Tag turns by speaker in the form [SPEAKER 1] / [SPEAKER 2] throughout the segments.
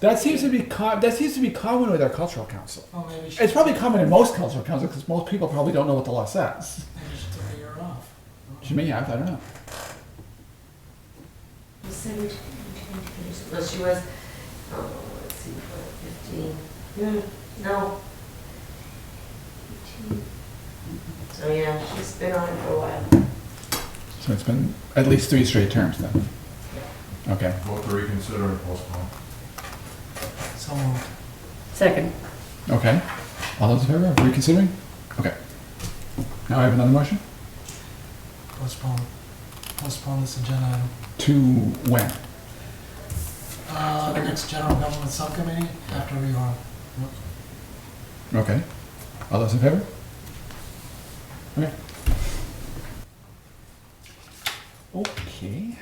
[SPEAKER 1] That seems to be com- that seems to be common with our cultural council.
[SPEAKER 2] Well, maybe she,
[SPEAKER 1] It's probably common in most cultural councils because most people probably don't know what the law says.
[SPEAKER 2] maybe she took a year off.
[SPEAKER 1] To me, I, I don't know.
[SPEAKER 3] December 2020. Well, she was, oh, let's see, what, 15? Yeah. No. 15. So, yeah, she's been on it for a while.
[SPEAKER 1] So it's been at least three straight terms then. Okay.
[SPEAKER 4] Vote to reconsider and postpone.
[SPEAKER 2] So moved.
[SPEAKER 5] Second.
[SPEAKER 1] Okay. All those in favor of reconsidering? Okay. Now I have another motion.
[SPEAKER 2] Postpone. Postpone this agenda item.
[SPEAKER 1] To when?
[SPEAKER 2] Uh, the next general government subcommittee after we are.
[SPEAKER 1] Okay. All those in favor? Okay. Okay.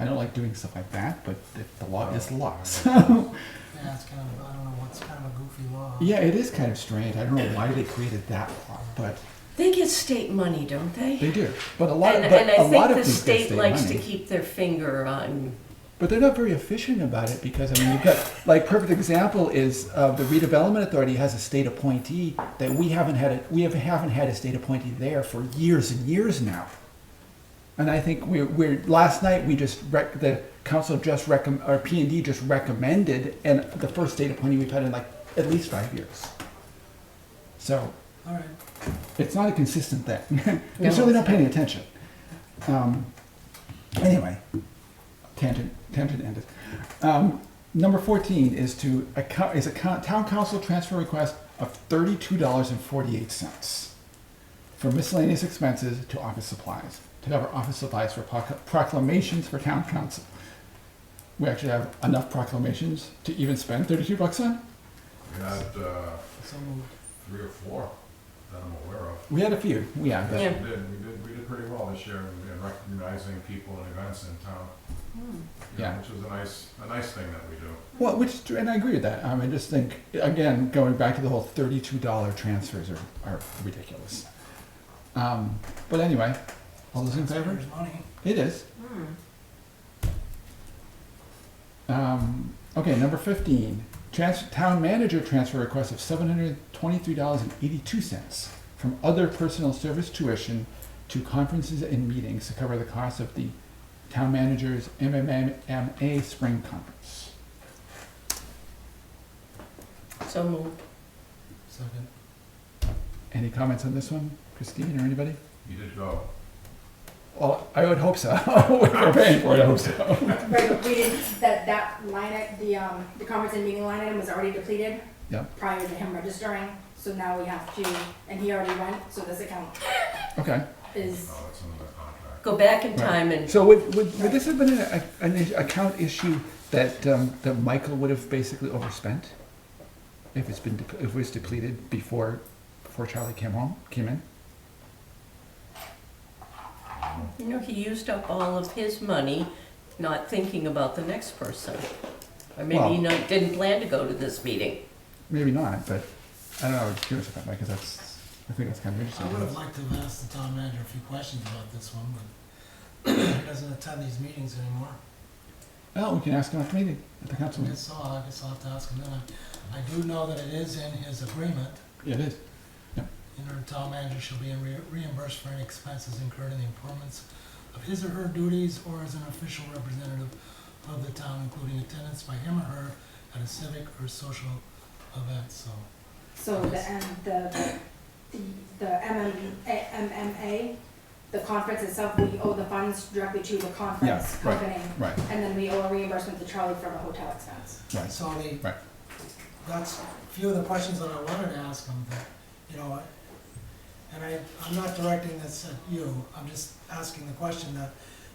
[SPEAKER 1] I don't like doing stuff like that, but if the law is the law. So
[SPEAKER 2] Yeah, it's kind of, I don't know, what's kind of a goofy law.
[SPEAKER 1] yeah, it is kind of strange. I don't know why they created that law, but
[SPEAKER 5] They get state money, don't they?
[SPEAKER 1] they do. But a lot,
[SPEAKER 5] And,
[SPEAKER 1] but
[SPEAKER 5] and
[SPEAKER 1] a
[SPEAKER 5] I
[SPEAKER 1] lot
[SPEAKER 5] think
[SPEAKER 1] of
[SPEAKER 5] the
[SPEAKER 1] these
[SPEAKER 5] state likes to
[SPEAKER 1] money.
[SPEAKER 5] keep their finger on,
[SPEAKER 1] But they're not very efficient about it because I mean you've got like perfect example is uh, the redevelopment authority has a state appointee that we haven't had a, we have, haven't had a state appointee there for years and years now. And I think we're, we're last night we just rec- the council just recommend or P and D just recommended and the first state appointee we've had in like at least five years. So
[SPEAKER 2] All right.
[SPEAKER 1] it's not a consistent thing. They're
[SPEAKER 5] No.
[SPEAKER 1] certainly not paying attention. Um, anyway, tangent, tangent ended. Um, number 14 is to account, is a co- town council transfer request of $32.48 for miscellaneous expenses to office supplies, to cover office supplies for proc- proclamations for town council. We actually have enough proclamations to even spend 32 bucks on.
[SPEAKER 4] We had uh,
[SPEAKER 2] So moved.
[SPEAKER 4] three or four that I'm aware of.
[SPEAKER 1] We had a few. Yeah.
[SPEAKER 4] Yes,
[SPEAKER 5] Yeah.
[SPEAKER 4] we did. We did, we did pretty well this year in in recognizing people and events in town. you know,
[SPEAKER 1] Yeah.
[SPEAKER 4] Which is a nice, a nice thing that we do.
[SPEAKER 1] Well, which, and I agree with that. Um, I just think, again, going back to the whole thirty-two dollar transfers are, are ridiculous. Um, but anyway, all those in favor?
[SPEAKER 2] Taxpayers' money.
[SPEAKER 1] It is. Um, okay, number fifteen, trans, town manager transfer request of seven hundred twenty-three dollars and eighty-two cents from other personal service tuition to conferences and meetings to cover the cost of the town manager's MMMA spring conference.
[SPEAKER 5] so moved.
[SPEAKER 2] Second.
[SPEAKER 1] Any comments on this one, Christine or anybody?
[SPEAKER 4] You did go.
[SPEAKER 1] Well, I would hope so. If We're paying for it, I hope so.
[SPEAKER 6] Right, but we didn't, that, that line, i- the, um, the conference and meeting line item was already depleted
[SPEAKER 1] Yep,
[SPEAKER 6] prior to him registering, so now we have to, and he already went, so this account
[SPEAKER 1] okay.
[SPEAKER 6] is,
[SPEAKER 4] No, it's in the contract.
[SPEAKER 5] Go back in time and,
[SPEAKER 1] So would, would, would this have been an, an is- account issue that, um, that Michael would have basically overspent? If it's been, dep- if it was depleted before, before Charlie came home, came in?
[SPEAKER 5] you know, he used up all of his money, not thinking about the next person. Or maybe he
[SPEAKER 1] Well-
[SPEAKER 5] not, didn't plan to go to this meeting.
[SPEAKER 1] Maybe not, but I don't know, I was curious about that, because that's, I think that's kind of
[SPEAKER 2] I would have
[SPEAKER 1] interesting.
[SPEAKER 2] liked to have asked the town manager a few questions about this one, but he doesn't attend these meetings anymore.
[SPEAKER 1] Oh, we can ask him after the meeting, at the
[SPEAKER 2] I
[SPEAKER 1] council meeting.
[SPEAKER 2] guess so, I guess I'll have to ask him then. I I do know that it is in his agreement,
[SPEAKER 1] Yeah, it is.
[SPEAKER 2] you know, the town manager shall be re- reimbursed for any expenses incurred in the performance of his or her duties or as an official representative of the town, including attendance by him or her at a civic or social event, so.
[SPEAKER 6] so the, and the, the, the MMA, MMA, the conference itself, we owe the funds directly to the conference
[SPEAKER 1] Yeah, right.
[SPEAKER 6] company.
[SPEAKER 1] Right,
[SPEAKER 6] And then we owe a reimbursement to Charlie for the hotel expense.
[SPEAKER 1] right.
[SPEAKER 2] So the,
[SPEAKER 1] Right.
[SPEAKER 2] that's a few of the questions that I wanted to ask him, that, you know, and I, I'm not directing this at you, I'm just asking the question that,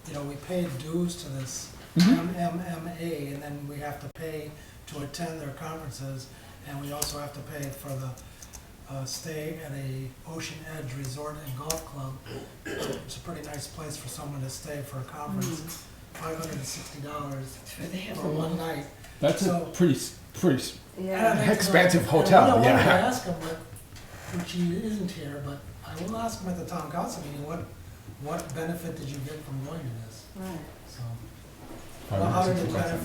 [SPEAKER 2] you know, we paid dues to this
[SPEAKER 1] Mhm.
[SPEAKER 2] MMMA, and then we have to pay to attend their conferences, and we also have to pay for the, uh, stay at a Ocean Edge Resort and Golf Club. It's a pretty nice place for someone to stay for a conference, five hundred and sixty dollars for one night.
[SPEAKER 1] That's a
[SPEAKER 2] So-
[SPEAKER 1] pretty, s- pretty s-
[SPEAKER 2] And I'd like to know-
[SPEAKER 1] Expensive
[SPEAKER 2] and
[SPEAKER 1] hotel,
[SPEAKER 2] I wanted to
[SPEAKER 1] yeah.
[SPEAKER 2] ask him, what- which he isn't here, but I will ask him at the town council meeting, what, what benefit did you get from going to this? So,
[SPEAKER 1] probably
[SPEAKER 2] how did
[SPEAKER 1] sixty
[SPEAKER 2] it
[SPEAKER 1] bucks.
[SPEAKER 2] benefit